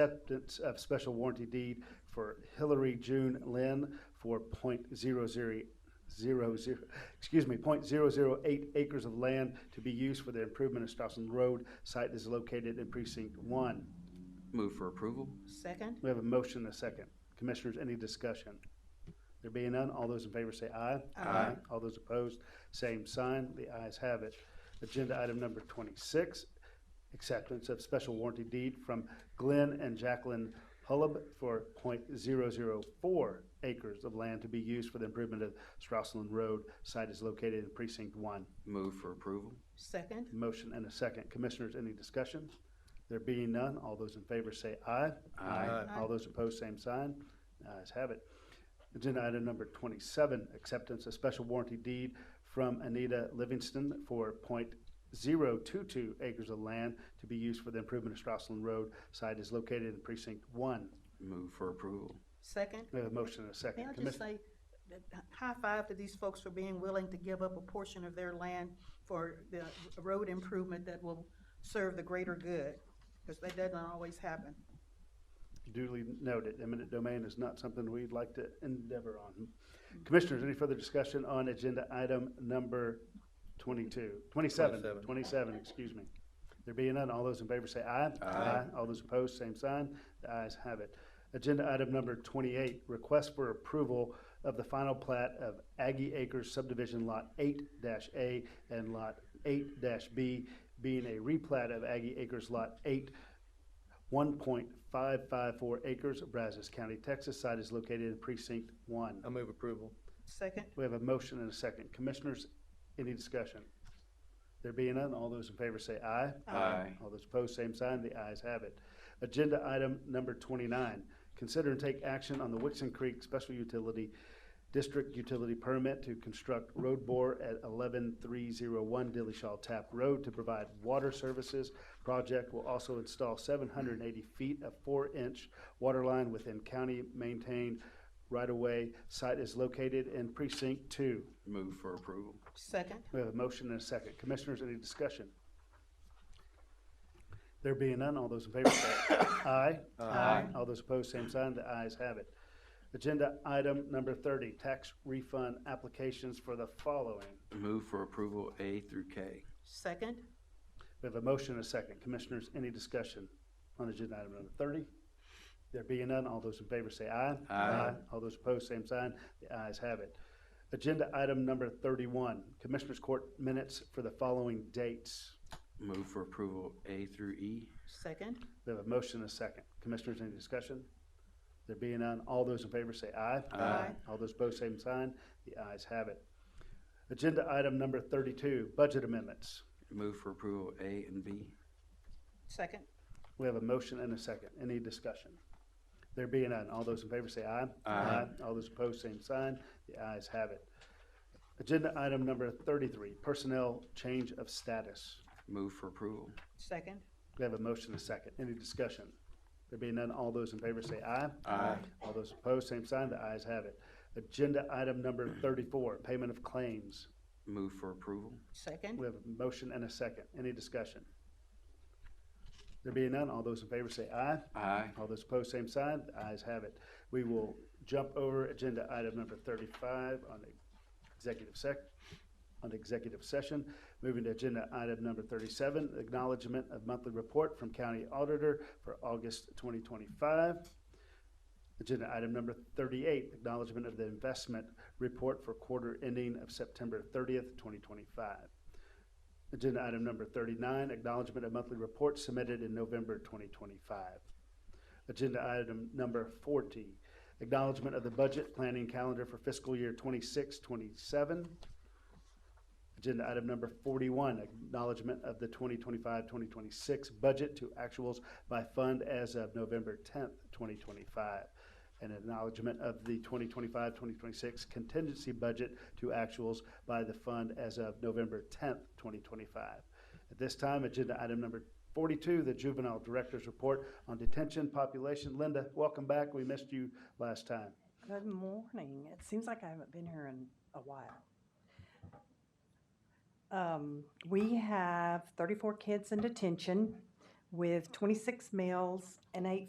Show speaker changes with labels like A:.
A: acceptance of special warranty deed for Hillary June Lynn for point zero zero zero zero, excuse me, point zero zero eight acres of land to be used for the improvement of Strausson Road. Site is located in precinct one.
B: Move for approval?
C: Second?
A: We have a motion and a second. Commissioners, any discussion? There being none, all those in favor say aye.
C: Aye.
A: All those opposed, same sign. The ayes have it. Agenda item number twenty-six, acceptance of special warranty deed from Glenn and Jacqueline Hullab for 0.004 acres of land to be used for the improvement of Strausseland Road. Site is located in precinct one.
B: Move for approval?
C: Second?
A: Motion and a second. Commissioners, any discussion? There being none, all those in favor say aye.
B: Aye.
A: All those opposed, same sign. Ayes have it. Agenda item number twenty-seven, acceptance of special warranty deed from Anita Livingston for 0.022 acres of land to be used for the improvement of Strausseland Road. Site is located in precinct one.
B: Move for approval?
C: Second?
A: We have a motion and a second.
C: May I
A: Commis-
C: just say, uh, high five to these folks for being willing to give up a portion of their land for the road improvement that will serve the greater good, because that doesn't always happen.
A: duly noted, eminent domain is not something we'd like to endeavor on. Commissioners, any further discussion on agenda item number 22, 27,
D: 27.
A: 27, excuse me? There being none, all those in favor say aye.
B: Aye.
A: All those opposed, same sign. The ayes have it. Agenda item number 28, request for approval of the final plat of Aggie Acres subdivision Lot 8-A and Lot 8-B, being a replat of Aggie Acres Lot 8 1.554 acres of Brazos County, Texas. Site is located in precinct one.
D: I move approval.
C: Second?
A: We have a motion and a second. Commissioners, any discussion? There being none, all those in favor say aye.
C: Aye.
A: All those opposed, same sign. The ayes have it. Agenda item number twenty-nine, consider and take action on the Wixon Creek Special Utility District Utility Permit to construct road bore at eleven-three-zero-one Dilly Shaw Tap Road to provide water services. Project will also install seven hundred and eighty feet of four-inch water line within county-maintained right-of-way. Site is located in precinct two.
B: Move for approval?
C: Second?
A: We have a motion and a second. Commissioners, any discussion? There being none, all those in favor say aye.
C: Aye.
A: All those opposed, same sign. The ayes have it. Agenda item number thirty, tax refund applications for the following.
B: Move for approval A through K?
C: Second?
A: We have a motion and a second. Commissioners, any discussion on agenda item number thirty? There being none, all those in favor say aye.
B: Aye.
A: All those opposed, same sign. The ayes have it. Agenda item number thirty-one, Commissioners Court minutes for the following dates.
B: Move for approval A through E?
C: Second?
A: We have a motion and a second. Commissioners, any discussion? There being none, all those in favor say aye.
B: Aye.
C: Aye.
A: All those opposed, same sign. The ayes have it. Agenda item number thirty-two, budget amendments.
B: Move for approval A and B?
C: Second?
A: We have a motion and a second. Any discussion? There being none, all those in favor say aye.
B: Aye.
A: All those opposed, same sign. The ayes have it. Agenda item number thirty-three, personnel change of status.
B: Move for approval?
C: Second?
A: We have a motion and a second. Any discussion? There being none, all those in favor say aye.
B: Aye.
A: All those opposed, same sign. The ayes have it. Agenda item number thirty-four, payment of claims.
B: Move for approval?
C: Second?
A: We have a motion and a second. Any discussion? There being none, all those in favor say aye.
B: Aye.
A: All those opposed, same sign. The ayes have it. We will jump over agenda item number thirty-five on executive sec, on executive session. Moving to agenda item number thirty-seven, acknowledgement of monthly report from county auditor for August twenty twenty-five. Agenda item number thirty-eight, acknowledgement of the investment report for quarter ending of September thirtieth, twenty twenty-five. Agenda item number thirty-nine, acknowledgement of monthly report submitted in November twenty twenty-five. Agenda item number forty, acknowledgement of the budget planning calendar for fiscal year 26-27. Agenda item number forty-one, acknowledgement of the 2025-2026 budget to actuals by fund as of November tenth, twenty twenty-five. And acknowledgement of the 2025-2026 contingency budget to actuals by the fund as of November tenth, twenty twenty-five. At this time, agenda item number forty-two, the juvenile director's report on detention population. Linda, welcome back. We missed you last time.
E: Good morning. It seems like I haven't been here in a while. Um, We have 34 kids in detention with 26 males and eight